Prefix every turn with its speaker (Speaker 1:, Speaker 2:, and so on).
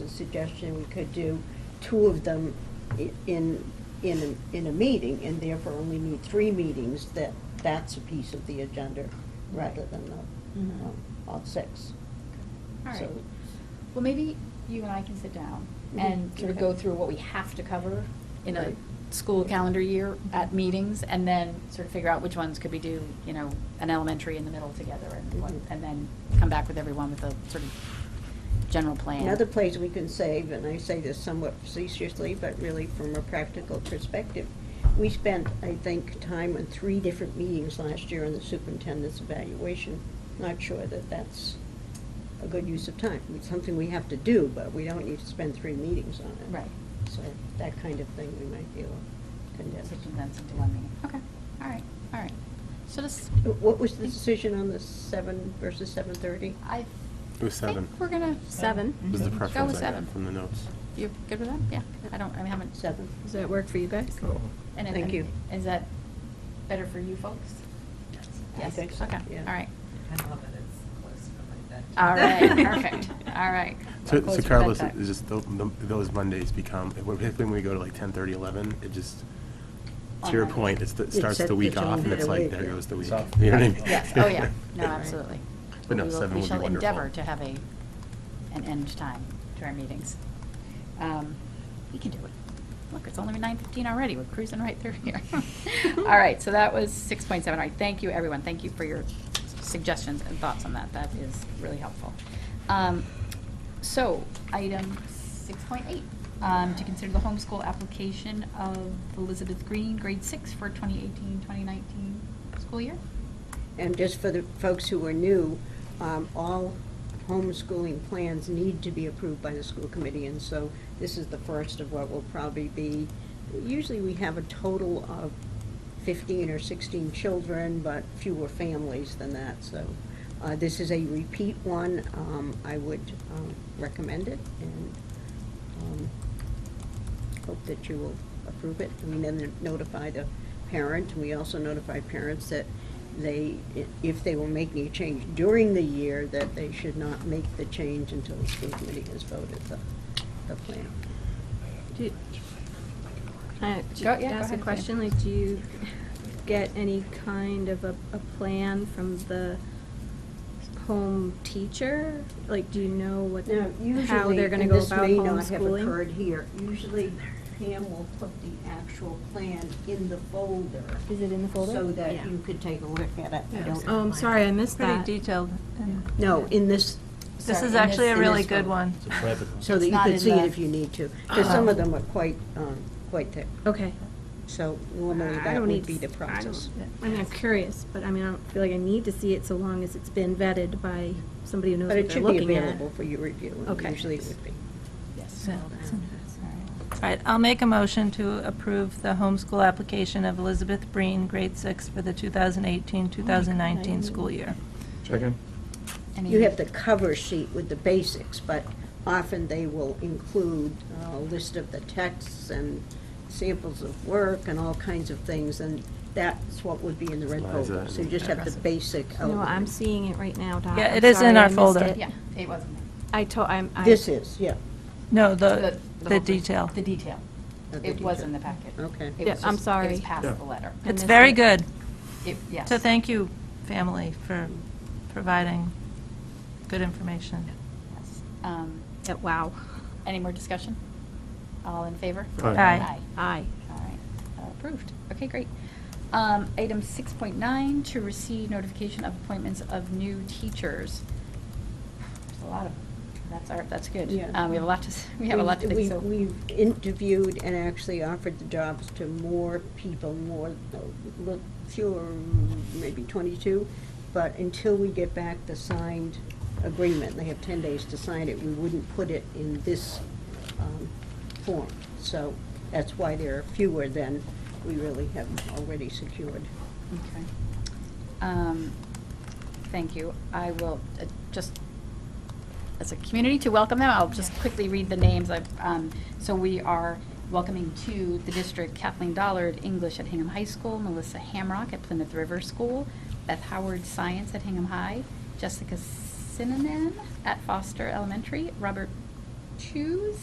Speaker 1: a suggestion, we could do two of them i- in, in, a- in a meeting, and therefore only need three meetings, that, that's a piece of the agenda, rather than the,
Speaker 2: Mhm.
Speaker 1: um, all six.
Speaker 2: All right.
Speaker 1: So-
Speaker 2: Well, maybe you and I can sit down and
Speaker 1: Mhm.
Speaker 2: sort of go through what we have to cover in a
Speaker 1: Right.
Speaker 2: school calendar year at meetings, and then sort of figure out which ones could we do, you know, an elementary in the middle together, and what-
Speaker 1: Mhm.
Speaker 2: and then come back with everyone with a sort of general plan.
Speaker 1: Another place we can save, and I say this somewhat facetiously, but really from a practical perspective, we spent, I think, time on three different meetings last year on the superintendent's evaluation. Not sure that that's a good use of time. It's something we have to do, but we don't need to spend three meetings on it.
Speaker 2: Right.
Speaker 1: So that kind of thing we might be able to
Speaker 2: Sort
Speaker 1: condense.
Speaker 2: of Condense into one meeting. Okay, all right, all right. So this,
Speaker 1: What was the decision on the seven versus seven thirty?
Speaker 2: I
Speaker 3: It was seven.
Speaker 2: think we're gonna, seven.
Speaker 3: Was the
Speaker 2: Mm-hmm. Go
Speaker 3: preference
Speaker 2: with
Speaker 3: I got
Speaker 2: seven.
Speaker 3: from the notes.
Speaker 2: You're good with that? Yeah, I don't, I haven't.
Speaker 1: Seven.
Speaker 4: Does that work for you guys?
Speaker 2: And if-
Speaker 1: Thank you.
Speaker 2: Is that better for you folks?
Speaker 1: I
Speaker 2: Yes,
Speaker 1: think so,
Speaker 2: okay,
Speaker 1: yeah.
Speaker 2: all right.
Speaker 5: I love it, it's close to my
Speaker 2: All
Speaker 5: bedtime.
Speaker 2: right, perfect, all right.
Speaker 3: So,
Speaker 2: Close
Speaker 3: so
Speaker 2: for
Speaker 3: Carlos,
Speaker 2: bedtime.
Speaker 3: it's just, tho- tho- those Mondays become, particularly when we go to like 10:30, 11, it just, to your
Speaker 2: Online.
Speaker 3: point, it's, the- it
Speaker 1: It
Speaker 3: starts
Speaker 1: set
Speaker 3: the week
Speaker 1: the tone
Speaker 3: off, and
Speaker 1: for
Speaker 3: it's
Speaker 1: the
Speaker 3: like,
Speaker 1: week,
Speaker 3: there
Speaker 1: yeah.
Speaker 3: goes the week.
Speaker 6: So-
Speaker 3: You know what I mean?
Speaker 2: Yes, oh yeah, no, absolutely.
Speaker 3: But no,
Speaker 2: We will-
Speaker 3: seven would be
Speaker 2: We
Speaker 3: wonderful.
Speaker 2: shall endeavor to have a, an end time to our meetings. Um, We can do it. Look, it's only nine fifteen already, we're cruising right through here. All right, so that was six point seven, all right, thank you, everyone, thank you for your suggestions and thoughts on that, that is really helpful. Um, So, item six point eight, um, to consider the homeschool application of Elizabeth Green, grade six, for 2018-2019 school year?
Speaker 1: And just for the folks who are new, um, all homeschooling plans need to be approved by the school committee, and so this is the first of what will probably be, usually we have a total of 15 or 16 children, but fewer families than that, so uh, this is a repeat one. Um, I would um, recommend it, and um, hope that you will approve it. We then notify the parent, we also notify parents that they, if they were making a change during the year, that they should not make the change until the school committee has voted the, the plan.
Speaker 4: Do you- I- ju-
Speaker 2: Go- yeah, go
Speaker 4: Ask a
Speaker 2: ahead,
Speaker 4: question, like, do you get any kind of a, a plan from the home teacher? Like, do you know what, how they're gonna go about
Speaker 1: Usually, and this may not have
Speaker 4: homeschooling?
Speaker 1: occurred here, usually Pam will put the actual plan in the folder.
Speaker 4: Is it in the folder?
Speaker 1: So that
Speaker 4: Yeah.
Speaker 1: you could take a look at it. I don't-
Speaker 4: Oh, I'm sorry, I missed
Speaker 7: Pretty
Speaker 4: that.
Speaker 7: detailed. and-
Speaker 1: No, in this,
Speaker 7: This
Speaker 2: Sorry,
Speaker 7: is
Speaker 2: in
Speaker 7: actually
Speaker 2: this-
Speaker 7: a
Speaker 1: in
Speaker 7: really
Speaker 1: this
Speaker 7: good
Speaker 1: one.
Speaker 7: one.
Speaker 6: It's a private one.
Speaker 1: so that
Speaker 2: It's
Speaker 1: you
Speaker 2: not
Speaker 1: could
Speaker 2: in
Speaker 1: see it
Speaker 2: the-
Speaker 1: if you need to, because some of them are quite, um, quite thick.
Speaker 4: Okay.
Speaker 1: So normally
Speaker 4: I
Speaker 1: that
Speaker 4: don't
Speaker 1: would
Speaker 4: need
Speaker 1: be the
Speaker 4: s- I
Speaker 1: process.
Speaker 4: don't- I mean, I'm curious, but I mean, I don't feel like I need to see it so long as it's been vetted by somebody who knows
Speaker 1: But
Speaker 4: what
Speaker 1: it
Speaker 4: they're
Speaker 1: should be
Speaker 4: looking at.
Speaker 1: available for your review, and
Speaker 4: Okay.
Speaker 1: usually it would be.
Speaker 2: Yes.
Speaker 7: Yeah.
Speaker 2: All right.
Speaker 7: All right, I'll make a motion to approve the homeschool application of Elizabeth Breen, grade six, for the 2018-2019 school year.
Speaker 6: Second?
Speaker 2: Any-
Speaker 1: You have the cover sheet with the basics, but often they will include a list of the texts and samples of work and all kinds of things, and that's what would be in the red
Speaker 3: Slides
Speaker 1: folder.
Speaker 3: that
Speaker 1: So you just have the
Speaker 3: impressive.
Speaker 1: basic
Speaker 4: No, I'm
Speaker 1: outline.
Speaker 4: seeing it right now, Dot.
Speaker 7: Yeah,
Speaker 4: I'm
Speaker 7: it is in
Speaker 4: sorry,
Speaker 7: our
Speaker 4: I missed
Speaker 7: folder.
Speaker 4: it.
Speaker 2: Yeah, it wasn't.
Speaker 4: I told, I'm. I-
Speaker 1: This is, yeah.
Speaker 7: No,
Speaker 2: The-
Speaker 7: the,
Speaker 2: the
Speaker 7: the
Speaker 2: whole thing.
Speaker 7: detail.
Speaker 2: The detail.
Speaker 1: Oh, the
Speaker 2: It was in the
Speaker 1: detail.
Speaker 2: packet.
Speaker 1: Okay.
Speaker 2: It
Speaker 4: Yeah,
Speaker 2: was just-
Speaker 4: I'm
Speaker 2: It was
Speaker 4: sorry.
Speaker 2: past
Speaker 3: Yeah.
Speaker 2: the letter.
Speaker 4: I
Speaker 7: It's
Speaker 4: missed
Speaker 7: very
Speaker 4: it.
Speaker 7: good.
Speaker 2: It- Yes.
Speaker 7: So thank you, family, for providing good information.
Speaker 2: Yes. Um,
Speaker 4: Yeah, Wow.
Speaker 2: Any more discussion? All in favor?
Speaker 3: Aye.
Speaker 7: Aye.
Speaker 4: Aye.
Speaker 2: All right, Uh, approved. Okay, great. Um, Item 6.9, to receive notification of appointments of new teachers. There's a lot of, that's our, that's good.
Speaker 1: Yeah.
Speaker 2: Uh, We have a lot to, s- we have a lot to
Speaker 1: We've-
Speaker 2: think so.
Speaker 1: We've we've interviewed and actually offered the jobs to more people, more, uh, look, fewer, maybe 22, but until we get back the signed agreement, they have 10 days to sign it, we wouldn't put it in this um, form. So that's why there are fewer than we really have already secured.
Speaker 2: Okay. Um, Thank you. I will uh, just, as a community to welcome them, I'll just quickly read the names. I've, um, So we are welcoming to the district Kathleen Dollard, English at Hingham High School, Melissa Hamrock at Plymouth River School, Beth Howard, Science at Hingham High, Jessica Sinanen at Foster Elementary, Robert choose.